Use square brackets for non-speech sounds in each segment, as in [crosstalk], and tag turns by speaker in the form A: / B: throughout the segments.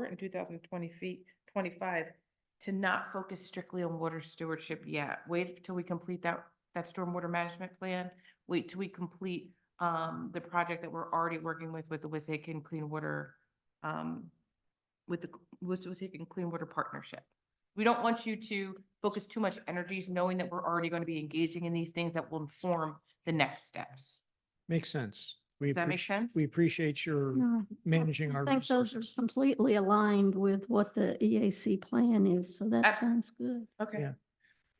A: in two thousand twenty feet, twenty-five to not focus strictly on water stewardship yet. Wait till we complete that, that stormwater management plan. Wait till we complete, um, the project that we're already working with, with the Wissahickon Clean Water, um, with the, with the Wissahickon Clean Water Partnership. We don't want you to focus too much energies knowing that we're already going to be engaging in these things that will inform the next steps.
B: Makes sense. We
A: Does that make
B: appreci-
A: sense?
B: We appreciate your
C: No,
B: managing
C: I
B: our
C: think those are
B: resources.
C: completely aligned with what the EAC plan is, so that
A: Abs-
C: sounds good.
A: Okay.
B: Yeah.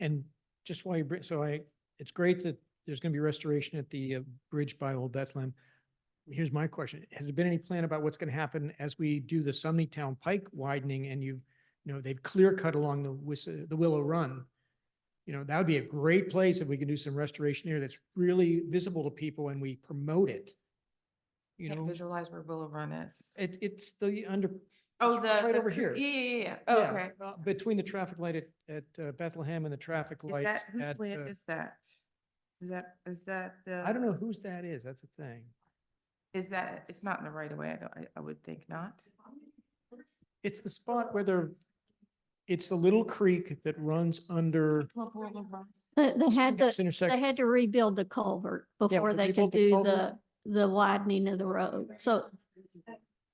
B: And just while you bring, so I, it's great that there's going to be restoration at the uh, bridge by Old Bethlehem. Here's my question. Has there been any plan about what's going to happen as we do the Sunnytown Pike widening and you, you know, they've clear cut along the Wis, uh, the Willow Run? You know, that would be a great place if we can do some restoration there that's really visible to people and we promote it. You
A: Can't
B: know,
A: visualize where Willow Run is.
B: it, it's the under.
A: Oh,
B: it's
A: the.
B: Right
A: the
B: over
A: cr-
B: here.
A: Yeah, yeah, yeah, yeah. Oh,
B: Yeah,
A: Okay.
B: uh, Between the traffic light at, at uh, Bethlehem and the traffic
A: Is
B: light
A: that, whose
B: at,
A: land
B: uh,
A: is that? Is that, is that the?
B: I don't know whose that is, that's a thing.
A: Is that, it's not in the right of way, I don't, I, I would think not.
B: It's the spot where there, it's the little creek that runs under
C: They, they had
B: this
C: to, they
B: intersection.
C: had to rebuild the culvert before
B: when they
C: they could
B: built the
C: do the,
B: culvert-
C: the widening of the road. So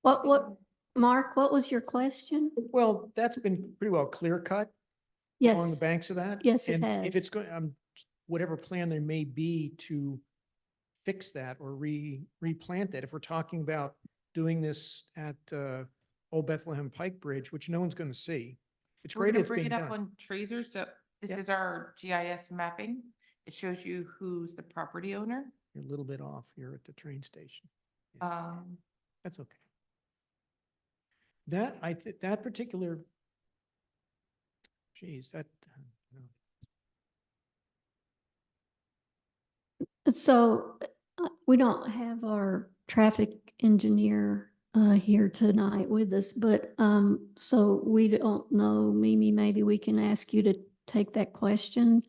C: what, what, Mark, what was your question?
B: Well, that's been pretty well clear cut along the
C: Yes,
B: banks of that.
C: Yes, it
B: and
C: has.
B: If it's going, um, whatever plan there may be to fix that or re, replant that, if we're talking about doing this at, uh, Old Bethlehem Pike Bridge, which no one's going to see. It's
A: We're
B: great
A: gonna
B: it's
A: bring
B: being
A: it up
B: done.
A: on Tracer, so this
B: Yeah.
A: is our GIS mapping. It shows you who's the property owner.
B: You're a little bit off, you're at the train station. Yeah.
A: Um,
B: That's okay. That, I, thi- that particular, geez, that, uh, no.
C: so uh, we don't have our traffic engineer uh, here tonight with us, but um, so we don't know, Mimi, maybe we can ask you to take that question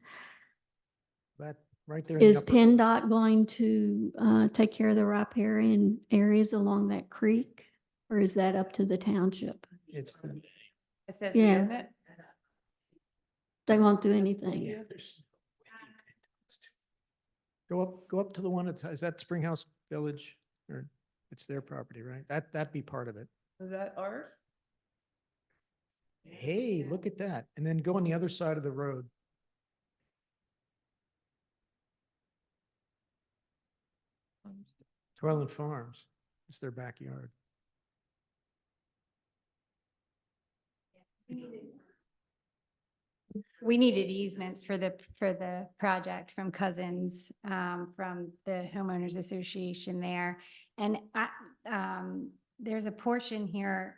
B: that, right there. in the
C: Is
B: upper-
C: PennDOT going to uh, take care of the riparian areas along that creek? Or is that up to the township?
B: It's, the-
A: it says,
C: Yeah.
A: isn't it?
C: They won't do anything.
B: yeah, there's- Go up, go up to the one, that's- is that Springhouse Village? Or, it's their property, right? That, that'd be part of it.
A: Is that ours?
B: Hey, look at that. And then go on the other side of the road. Toilet Farms, it's their backyard.
D: We needed easements for the, for the project from Cousins, um, from the homeowners association there. And I, um, there's a portion here,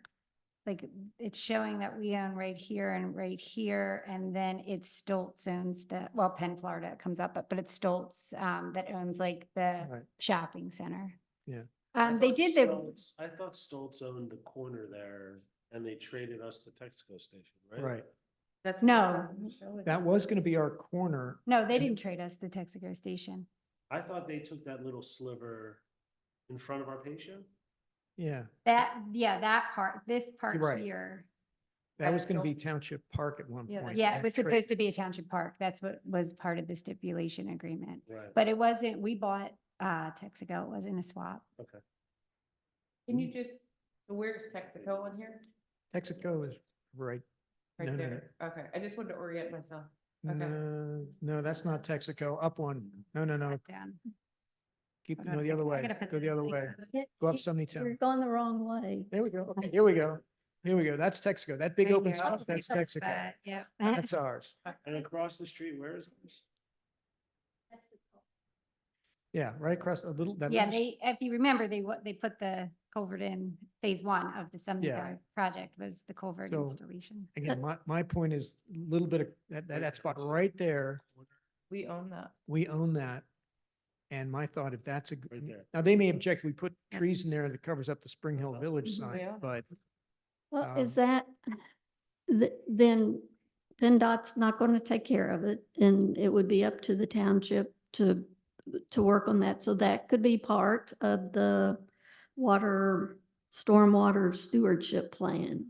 D: like, it's showing that we own right here and right here, and then it's Stoltz owns the, well, Penn, Florida comes up, but, but it's Stoltz, um, that owns like the
B: Right.
D: shopping center.
B: Yeah.
D: Um, they did the,
E: Stoltz- I thought Stoltz owned the corner there and they traded us the Texaco station, right?
B: Right.
A: That's. what it
D: No.
A: doesn't show it.
B: That was going to be our corner.
D: no, they didn't trade us the Texaco station.
E: I thought they took that little sliver in front of our patient.
B: Yeah,
D: That, yeah, that part, this part
B: Right.
D: here.
B: that was
A: That's
B: going to
A: all-
B: be Township Park at one
A: Yeah,
B: point.
D: Yeah, it
B: that
D: was
B: tra-
D: supposed to be a township park. That's what was part of the stipulation agreement.
E: Right.
D: But it wasn't, we bought, uh, Texaco. It wasn't a swap.
A: Can you just, where's Texaco on here?
B: Texaco is right. No,
A: Right
B: no,
A: there. Okay, I just wanted to orient myself. Okay.
B: No, no, that's not Texaco. Up one. No, no, no.
D: Not down.
B: Keep,
A: I
B: no,
A: gotta
B: the other
A: put- I
B: way.
A: gotta put
B: Uh, Go the
A: this
B: other
A: link
B: way.
A: on.
C: Yeah,
B: Go up
C: you- You're
B: Sunnytown.
C: going the wrong way.
B: There we go. Okay, here we go. Here we go. That's Texaco. That big
A: There you
B: open
A: go.
B: spot,
D: Oh,
B: that's Texaco.
D: [laughs] Yeah.
B: That's ours.
E: And across the street, where is this?
B: Yeah, right across a little, that
D: Yeah,
B: little, s-
D: they, if you remember, they, wa- they put the culvert in phase one of the
B: Yeah.
D: Sunnytown project was the culvert
B: So-
D: installation.
B: again, my, my point is a little bit of, that, that, that spot right there,
A: We own that.
B: we own that. And my thought, if that's a, g-
E: Right there.
B: now they may object, we put
D: That's-
B: trees in there that covers up the Spring Hill Village
A: Mhm. Yeah.
B: sign, but
C: Well, is
B: Um,
C: that, th- then PennDOT's not going to take care of it and it would be up to the township to, to work on that. So that could be part of the water, stormwater stewardship plan.